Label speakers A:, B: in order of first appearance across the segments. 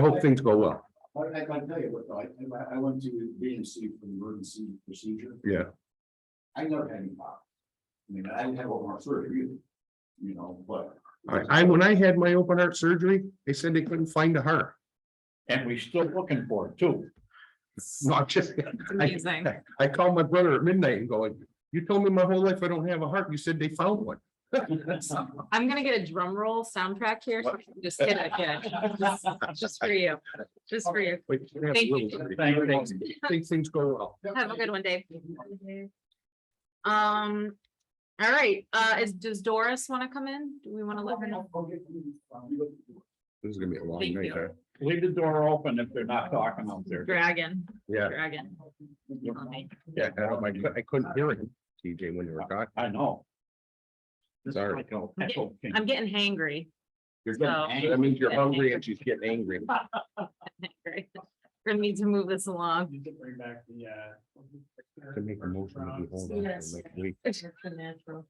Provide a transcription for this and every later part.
A: I hope things go well.
B: Well, I can tell you what, though, I, I- I went to B and C for the emergency procedure.
A: Yeah.
B: I never had any pop. I mean, I didn't have open heart surgery either. You know, but.
A: I, I, when I had my open heart surgery, they said they couldn't find a heart.
C: And we are still looking for it too.
A: Not just,
D: Amazing.
A: I called my brother at midnight and going, you told me my whole life I don't have a heart. You said they found one.
D: I'm gonna get a drum roll soundtrack here. so I can Just kidding, kidding. Just- Just for you, just for you.
A: But you can have a
D: Thank you.
A: little bit.
C: Thank you.
A: Think things go well.
D: Have a good one, Dave. Um, all right, uh, is, does Doris wanna come in? Do we wanna let her know?
B: um,
A: This is gonna be a long
D: Thank
A: night,
D: you.
A: huh?
C: Leave the door open if they're not talking out there.
D: Dragon,
A: Yeah,
D: dragon. Okay.
A: yeah, I don't- I cou- I couldn't hear him, TJ, when you were talking.
C: I know. This is
A: Sorry.
C: like a echo thing.
D: I'm getting hangry.
A: You're getting- That means you're hungry and she's getting angry.
D: We're gonna need to move this along.
E: You can bring back the, uh.
A: To make a motion, we hold on till
E: Yes.
A: next week.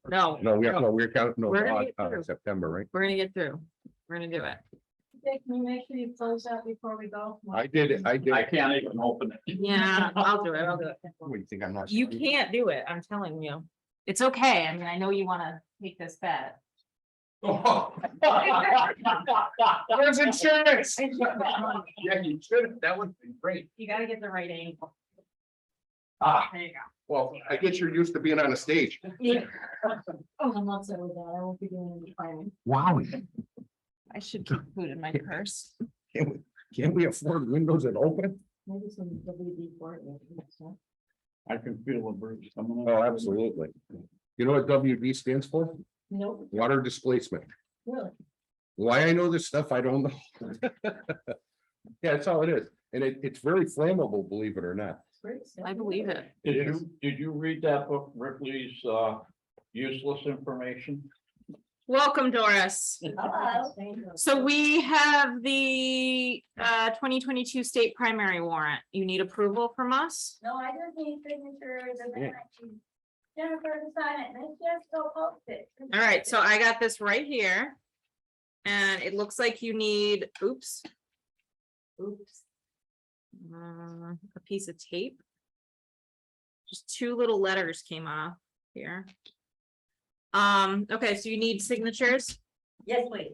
D: No,
A: No, we, no, we're counting, no,
D: We're gonna
A: uh,
D: get
A: uh,
D: through.
A: September, right?
D: we're gonna get through. We're gonna do it.
F: Dick, Can you make sure you close out before we go?
A: I did it, I did
C: I
A: it.
C: can't even open it.
D: Yeah, I'll do it. I'll do it.
A: What, you think I'm not?
D: You can't do it. I'm telling you. It's okay. I mean, I know you wanna take this bet.
A: Where's insurance?
D: You
A: Yeah, you should, that would be great.
D: gotta get the right angle.
A: Ah,
D: There you
A: well, I guess you're used to being on a stage.
D: go. Yeah.
F: Oh, I'm not so with that. I won't be doing any planning.
A: Wow,
D: I should keep food in my purse.
A: can't we afford windows that open?
F: Maybe some WD forty.
C: I can feel a bird.
A: Oh, absolutely. You know what WD stands for?
F: Nope,
A: Water displacement.
F: really.
A: Why I know this stuff, I don't know. Yeah, that's all it is. And it, it's very flammable, believe it or not.
F: it's great.
D: I believe it.
C: Did you, did you read that book, Ripley's, uh, useless information?
D: Welcome, Doris.
F: Hello. Thank you.
D: So we have the uh twenty twenty-two state primary warrant. You need approval from us?
G: No, I just need signatures and
A: Yeah.
G: then I can- Jennifer to sign it, and it's just go post it.
D: All right, so I got this right here. And it looks like you need, oops. Oops. Uh, A piece of tape. Just two little letters came off here. Um, okay, so you need signatures.
F: Yes, wait.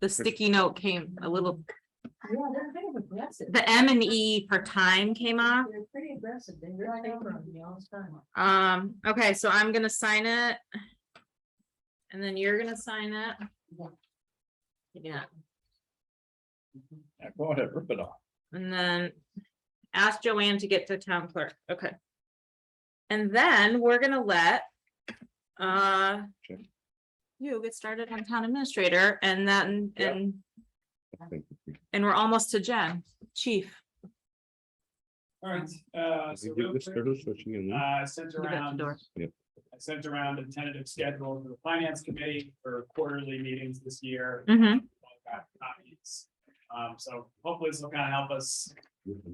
D: The sticky note came a little,
F: Yeah, they're kind of aggressive.
D: the M and E for time came off.
F: They're pretty aggressive. They really favor me all the time.
D: Um, okay, so I'm gonna sign it. And then you're gonna sign it.
F: Yeah.
D: Yeah.
C: Yeah, Go ahead, rip it off.
D: And then ask Joanne to get to town clerk, okay. And then we're gonna let, uh,
A: Sure.
D: you get started on town administrator and then,
C: Yeah.
D: and,
A: I think
D: and we're almost to Jen, chief.
E: All right, uh, so real quick, uh, I sent
D: You got the
E: around.
D: door.
A: Yep.
E: I sent around a tentative schedule to the finance committee for quarterly meetings this year.
D: Mm-hmm.
E: I've got copies. Um, so hopefully this will kind of help us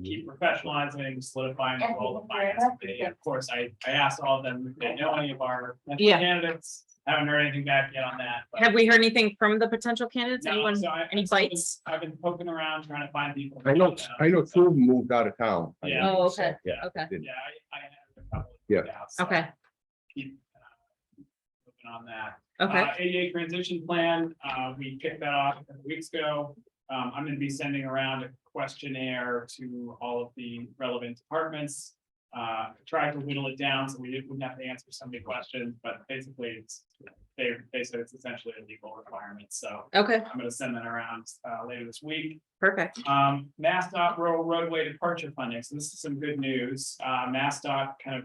E: keep professionalizing, solidifying the role of finance committee. Of course, I, I asked all of them, if they know any of our
D: Yeah.
E: candidates, haven't heard anything back yet on that. but-
D: Have we heard anything from the potential candidates?
E: No,
D: Anyone,
E: so I-
D: any
E: so I've been-
D: bites?
E: I've been poking around trying to find people.
A: I know, I know
E: So,
A: two of them moved out of town. I
E: Yeah.
A: know.
D: Oh, okay,
A: Yeah.
D: okay,
E: Yeah, I, I have a couple. of
A: Yeah.
E: doubts, so
D: okay,
E: Keep. uh, Looking on that.
D: okay.
E: Uh, ADA transition plan, uh, we kicked that off a couple weeks ago. Um, I'm gonna be sending around a questionnaire to all of the relevant departments. Uh, tried to whittle it down, so we didn't, wouldn't have to answer so many questions, but basically it's, they, they said it's essentially a legal requirement, so
D: Okay,
E: I'm gonna send that around, uh, later this week.
D: perfect.
E: Um, MassDOT rural roadway departure funding, so this is some good news, uh, MassDOT kind of.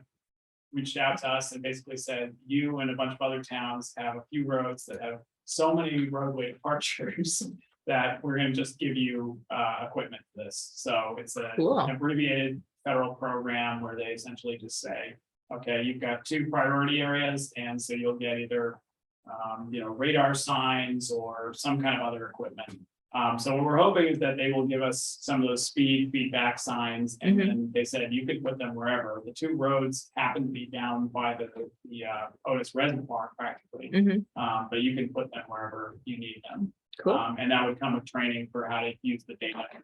E: Reached out to us and basically said, you and a bunch of other towns have a few roads that have so many roadway departures. That we're gonna just give you, uh, equipment for this, so it's a
D: Cool.
E: an abbreviated federal program where they essentially just say. Okay, you've got two priority areas, and so you'll get either, um, you know, radar signs or some kind of other equipment. Um, so what we're hoping is that they will give us some of those speed feedback signs, and
D: Mhm.
E: then they said you could put them wherever. The two roads happen to be down by the, the, uh, Otis Reservoir practically.
D: Mhm.
E: Um, but you can put them wherever you need them.
D: Cool.
E: Um, And that would come with training for how to use the data